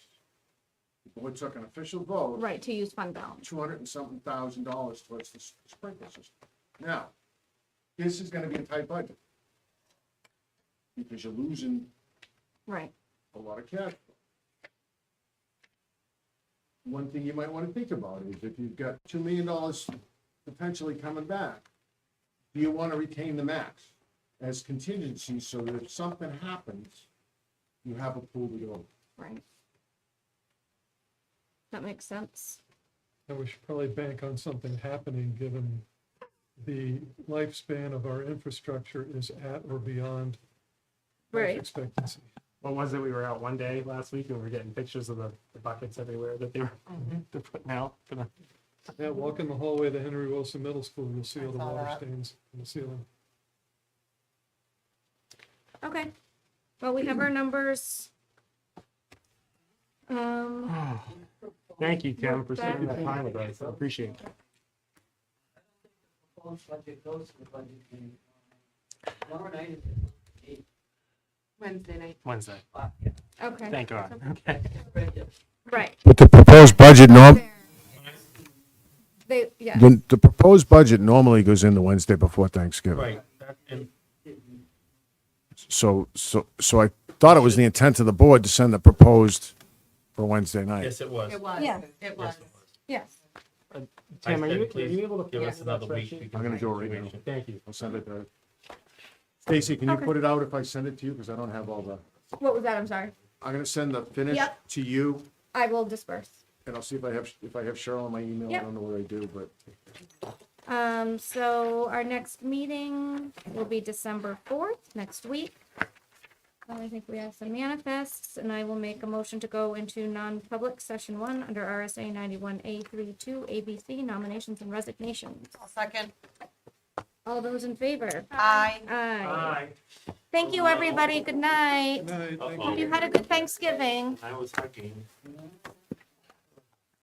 The board took an official vote, Right, to use fund balance. two hundred and something thousand dollars towards the s- sprinkler system. Now, this is gonna be a tight budget. Because you're losing Right, a lot of cash. flow. One thing you might want to think about is if you've got two million dollars potentially coming back, do you want to retain the max as contingency so that if something happens, you have a pool to go? right. That makes sense. And we should probably bank on something happening, given the lifespan of our infrastructure is at or beyond life Right. expectancy. What was it? We were out one day last week and we were getting pictures of the, the buckets everywhere that they were they're putting out for the Yeah, walk in the hallway to Henry Wilson Middle School, you'll see all the I saw water that. stains in the ceiling. Okay. Well, we have our numbers. Um, Thank you, Kim, Look, for spending that- that time with us. I appreciate it. proposed budget goes to the budget committee. Tomorrow night is eight Wednesday night. Wednesday. o'clock, yeah. okay, Thank God. Okay. Right, right. But the proposed budget norm, They, yeah, the, the proposed budget normally goes in the Wednesday before Thanksgiving. So, so, so I thought it was the intent of the board to send the proposed for Wednesday night. Yes, it was. It was, Yeah. it was. yes. Tim, are you, are Please you able to? Give pull us up that another week. spreadsheet? We can I'm gonna make go a right now. situation. Thank you. I'll send it to. Stacy, can you Okay. put it out if I send it to you? Because I don't have all the, What was that? I'm sorry. I'm gonna send the finish Yep. to you I will disperse. and I'll see if I have, if I have Cheryl on my email. I Yep. don't know where I do, but Um, so our next meeting will be December fourth, next week. I think we have some manifests and I will make a motion to go into non-public session one under RSA ninety-one A 32 ABC nominations and resignations. I'll second. All those in favor? Aye. Aye. Thank you, everybody. Good night. Good night, thank you. Hope you had a good Thanksgiving. I was hugging.